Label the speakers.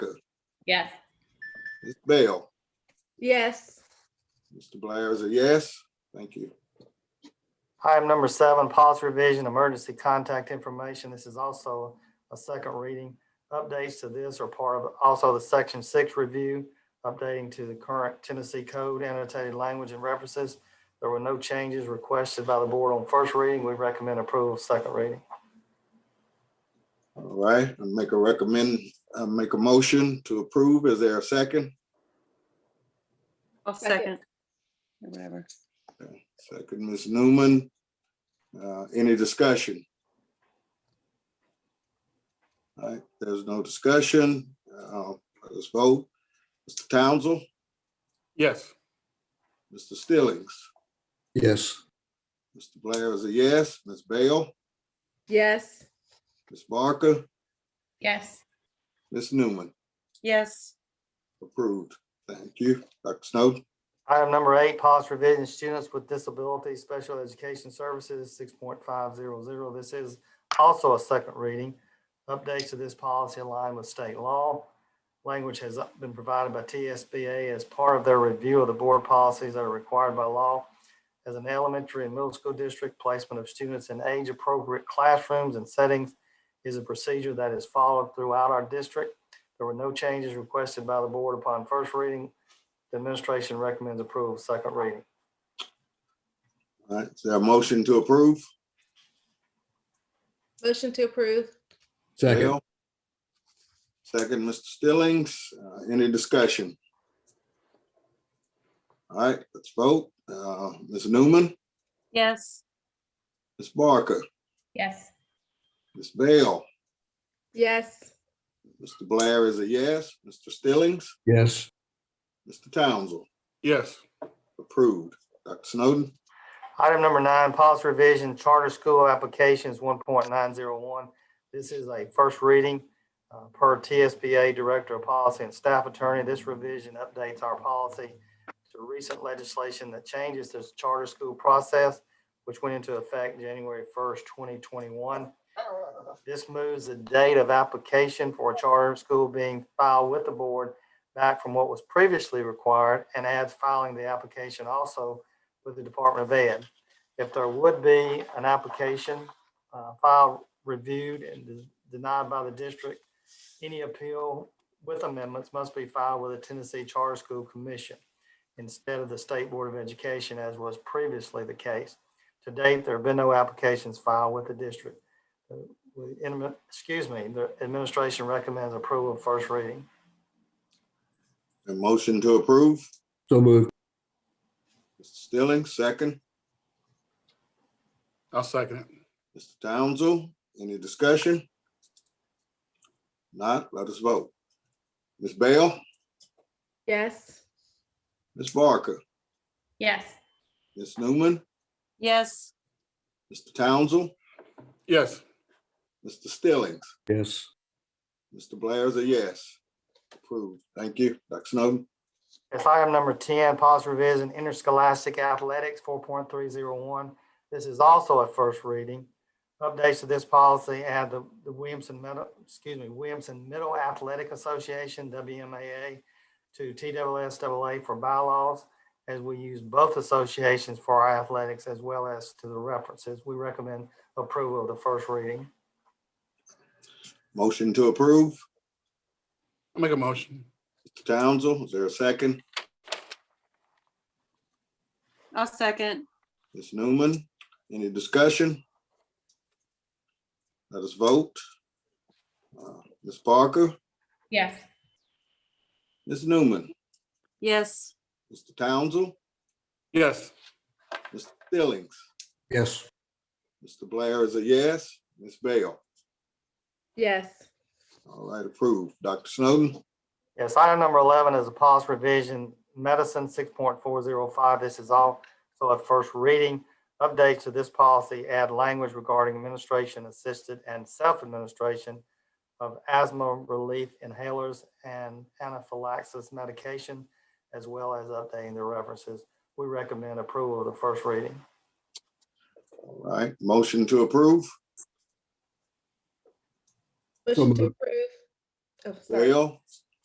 Speaker 1: Yes.
Speaker 2: Ms. Bell,
Speaker 3: Yes.
Speaker 2: Mr. Blair is a yes. Thank you.
Speaker 4: Item number seven, policy revision, emergency contact information. This is also a second reading. Updates to this are part of also the section six review, updating to the current Tennessee code annotated language and references. There were no changes requested by the board on first reading. We recommend approval of second reading.
Speaker 2: All right, I'll make a recommend, uh, make a motion to approve. Is there a second?
Speaker 5: I'll
Speaker 3: Second.
Speaker 5: second. Or Whatever.
Speaker 2: Second, Ms. Newman. Uh, any discussion? All right, there's no discussion. Uh, let's vote. Mr. Townsell,
Speaker 6: yes.
Speaker 2: Mr. Stillings,
Speaker 7: yes.
Speaker 2: Mr. Blair is a yes. Ms. Bell,
Speaker 3: Yes.
Speaker 2: Ms. Barker,
Speaker 1: Yes.
Speaker 2: Ms. Newman,
Speaker 5: Yes.
Speaker 2: approved. Thank you. Dr. Snowden,
Speaker 4: Item number eight, policy revision, students with disabilities, special education services, six point five zero zero. This is also a second reading. Updates to this policy align with state law. Language has been provided by TSBA as part of their review of the board policies that are required by law. As an elementary and middle school district, placement of students in age-appropriate classrooms and settings is a procedure that is followed throughout our district. There were no changes requested by the board upon first reading. The administration recommends approval, second reading.
Speaker 2: all right, is there a motion to approve?
Speaker 3: Motion to approve.
Speaker 7: Second,
Speaker 2: Bell. Second, Mr. Stillings, Uh, any discussion? All right, let's vote. Uh, Ms. Newman,
Speaker 5: Yes.
Speaker 2: Ms. Barker,
Speaker 1: Yes.
Speaker 2: Ms. Bell,
Speaker 3: Yes.
Speaker 2: Mr. Blair is a yes, Mr. Stillings,
Speaker 7: yes.
Speaker 2: Mr. Townsell,
Speaker 6: Yes.
Speaker 2: approved. Dr. Snowden,
Speaker 4: Item number nine, policy revision, charter school applications one point nine zero one. This is a first reading uh, per TSBA Director of Policy and Staff Attorney. This revision updates our policy to recent legislation that changes this charter school process, which went into effect January first, twenty twenty-one. This moves the date of application for a charter school being filed with the board back from what was previously required and adds filing the application also with the Department of Ed. If there would be an application uh, filed, reviewed, and de- denied by the district, any appeal with amendments must be filed with the Tennessee Charter School Commission instead of the State Board of Education, as was previously the case. To date, there have been no applications filed with the district. Uh, we- in- Excuse me, the administration recommends approval of first reading.
Speaker 2: a motion to approve.
Speaker 7: So moved.
Speaker 2: Mr. Stillings, second.
Speaker 6: I'll second it.
Speaker 2: Mr. Townsell, any discussion? Not, let us vote. Ms. Bell,
Speaker 3: Yes.
Speaker 2: Ms. Barker,
Speaker 1: Yes.
Speaker 2: Ms. Newman,
Speaker 5: Yes.
Speaker 2: Mr. Townsell,
Speaker 6: Yes.
Speaker 2: Mr. Stillings,
Speaker 7: Yes.
Speaker 2: Mr. Blair's a yes. Approved. Thank you. Dr. Snowden,
Speaker 4: It's item number ten, policy revision, interscholastic athletics, four point three zero one. This is also a first reading. Updates to this policy add the, the Williamson Middle, excuse me, Williamson Middle Athletic Association, WMAA, to TWSAA for bylaws, as we use both associations for our athletics as well as to the references. We recommend approval of the first reading.
Speaker 2: motion to approve.
Speaker 6: I'll make a motion.
Speaker 2: Mr. Townsell, is there a second?
Speaker 5: I'll second.
Speaker 2: Ms. Newman, any discussion? Let us vote. Uh, Ms. Parker,
Speaker 1: Yes.
Speaker 2: Ms. Newman,
Speaker 5: Yes.
Speaker 2: Mr. Townsell,
Speaker 6: Yes.
Speaker 2: Mr. Stillings,
Speaker 7: Yes.
Speaker 2: Mr. Blair is a yes. Ms. Bell,
Speaker 3: Yes.
Speaker 2: all right, approved. Dr. Snowden,
Speaker 4: Yes, item number eleven is a policy revision, medicine six point four zero five. This is all, so a first reading. Updates to this policy add language regarding administration assisted and self-administration of asthma relief inhalers and anaphylaxis medication, as well as updating the references. We recommend approval of the first reading.
Speaker 2: all right, motion to approve.
Speaker 3: Motion to
Speaker 7: moved.
Speaker 3: approve. Oh, sorry.
Speaker 2: Bell,